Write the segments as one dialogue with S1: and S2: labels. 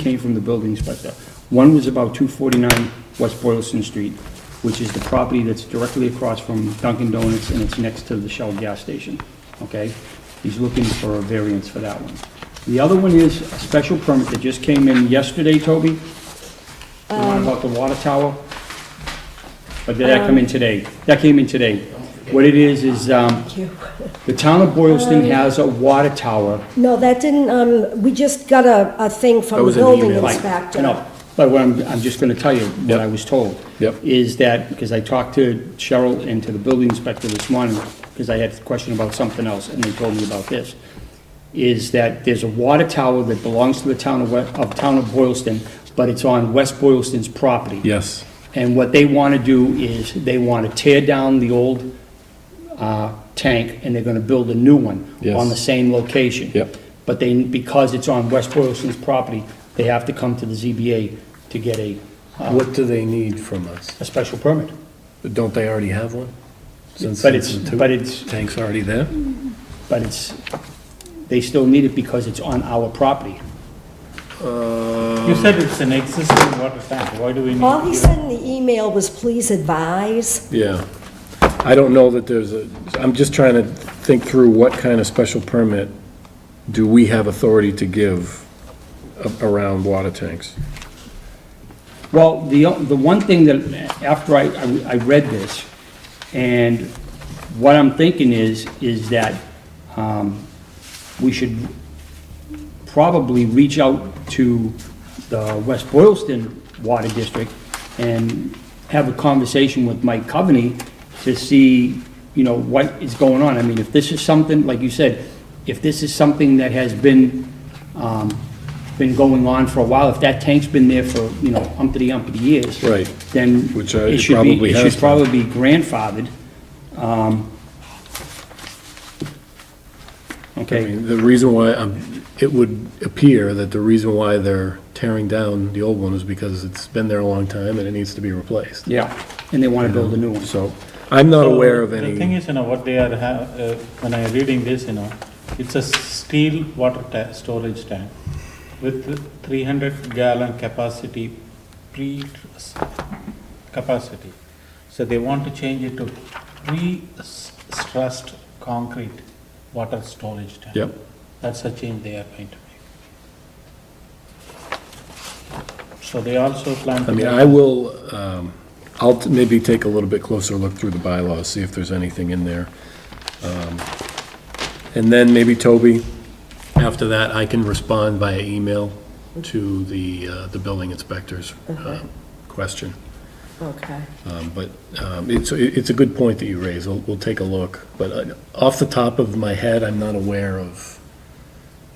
S1: came from the building inspector. One was about 249 West Boylston Street, which is the property that's directly across from Dunkin' Donuts, and it's next to the Shell gas station, okay? He's looking for a variance for that one. The other one is a special permit that just came in yesterday, Toby? The one about the water tower? Or did that come in today? That came in today. What it is, is um, the town of Boylston has a water tower
S2: No, that didn't, um, we just got a, a thing from
S3: That
S2: the
S3: was in the
S2: building
S3: email.
S1: Right, I
S2: inspector.
S1: know, but what I'm, I'm just gonna tell you what
S3: Yep.
S1: I was told.
S3: Yep.
S1: Is that, because I talked to Cheryl and to the building inspector this morning, because I had a question about something else, and they told me about this, is that there's a water tower that belongs to the town of, We- of town of Boylston, but it's on West Boylston's property.
S3: Yes.
S1: And what they want to do is, they want to tear down the old uh, tank, and they're going to build a new one on
S3: Yes.
S1: the same location.
S3: Yep.
S1: But they, because it's on West Boylston's property, they have to come to the ZBA to get a,
S4: What do they need from us?
S1: a special permit.
S4: Don't they already have one? Since-
S1: But it's-
S4: since the two
S1: but it's-
S4: Tank's already there?
S1: But it's, they still need it because it's on our property.
S5: You said it's an existing water tank, why do we need?
S2: All he
S5: to-
S2: said in the email was, please advise.
S3: Yeah. I don't know that there's a, I'm just trying to think through what kind of special permit do we have authority to give a- around water tanks?
S1: Well, the, the one thing that, after I, I read this, and what I'm thinking is, is that um, we should probably reach out to the West Boylston Water District and have a conversation with Mike Coveney to see, you know, what is going on. I mean, if this is something, like you said, if this is something that has been, um, been going on for a while, if that tank's been there for, you know, umpty umpty years.
S3: Right.
S1: Then
S3: Which, uh,
S1: it
S3: it
S1: should
S3: probably
S1: be, it
S3: has
S1: should
S3: been.
S1: probably be grandfathered. um,
S3: I
S1: Okay,
S3: mean, the reason why, um, it would appear that the reason why they're tearing down the old one is because it's been there a long time and it needs to be replaced.
S1: yeah, and they want to build a new one.
S3: So I'm not
S5: So,
S3: aware of
S5: The thing
S3: any,
S5: is, you know, what they are, ha- uh, when I'm reading this, you know, it's a steel water ta- storage tank with three hundred gallon capacity, pre, capacity. So they want to change it to pre-stressed concrete water storage tank.
S3: Yep.
S5: That's a change they are going to make. So they also plan to.
S3: I mean,
S5: make-
S3: I will, um, I'll t- maybe take a little bit closer look through the bylaws, see if there's anything in there. Um, And then maybe Toby, after that, I can respond via email to the, uh, the building inspector's um, question.
S2: Okay.
S3: Um, But um, it's, it's a good point that you raise. We'll, we'll take a look. But uh, off the top of my head, I'm not aware of,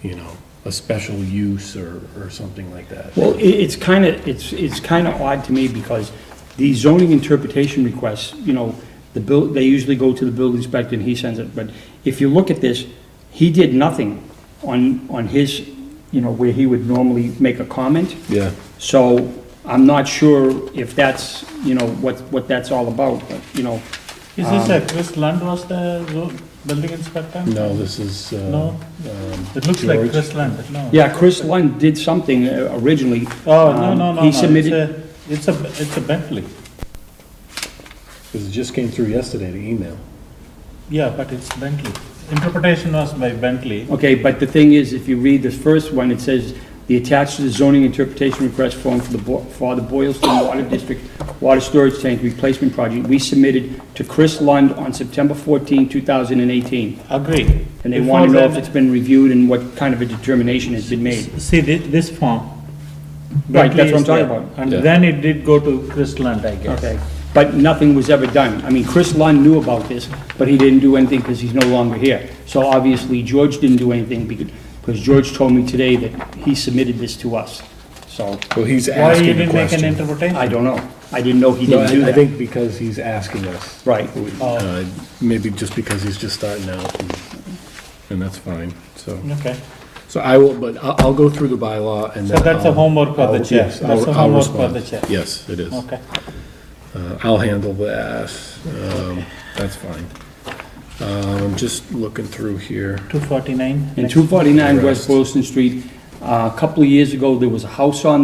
S3: you know, a special use or, or something like that.
S1: Well, i it's kind of, it's, it's kind of odd to me because the zoning interpretation requests, you know, the bill, they usually go to the building inspector and he sends it, but if you look at this, he did nothing on, on his, you know, where he would normally make a comment.
S3: Yeah.
S1: So I'm not sure if that's, you know, what, what that's all about, but, you know,
S5: Is this a Chris Lund was the zo- building inspector?
S3: um, No, this is. uh,
S5: No?
S3: um,
S5: It looks like
S3: George.
S5: Chris Lund, no?
S1: yeah, Chris Lund did something uh, originally.
S5: Oh, no, no,
S1: Um,
S5: no, no.
S1: He
S5: it's
S1: submitted,
S5: a- It's a, it's a Bentley,
S3: Because it just came through yesterday, the email.
S5: yeah, but it's Bentley. Interpretation was by Bentley.
S1: Okay, but the thing is, if you read the first one, it says, "The attached to the zoning interpretation request form for the, Bo- for the Boylston Water District Water Storage Tank Replacement Project, we submitted to Chris Lund on September 14, 2018."
S5: Agree.
S1: And they
S5: Before
S1: want to know if
S5: that-
S1: it's been reviewed and what kind of a determination has been made.
S5: See, thi- this form.
S1: Right,
S5: Bentley
S1: that's what I'm
S5: is
S1: talking
S5: there.
S1: about.
S5: And
S3: Yeah.
S5: then it did go to Chris Lund, I guess.
S1: Okay, but nothing was ever done. I mean, Chris Lund knew about this, but he didn't do anything because he's no longer here. So obviously, George didn't do anything because, because George told me today that he submitted this to us. So,
S3: Well, he's
S5: Why you
S3: asking a
S5: didn't make an
S3: question.
S5: interpretation?
S1: I don't know. I didn't know he
S3: No,
S1: didn't do
S3: I I
S1: that.
S3: think because he's asking us.
S1: Right.
S5: Oh.
S3: We- uh, Maybe just because he's just starting out, and- and that's fine, so.
S5: Okay,
S3: So I will, but I'll, I'll go through the bylaw and
S5: So
S3: then.
S5: that's a
S3: I'll-
S5: homework for the
S3: I'll-
S5: chair.
S3: yes, I'll-
S5: That's a
S3: I'll
S5: homework for
S3: respond.
S5: the chair.
S3: Yes, it is.
S5: okay.
S3: Uh, I'll handle that, um, that's fine. Um, just looking through here.
S5: Two forty-nine.
S1: And 249 West Boylston Street, Uh, A couple of years ago, there was a house on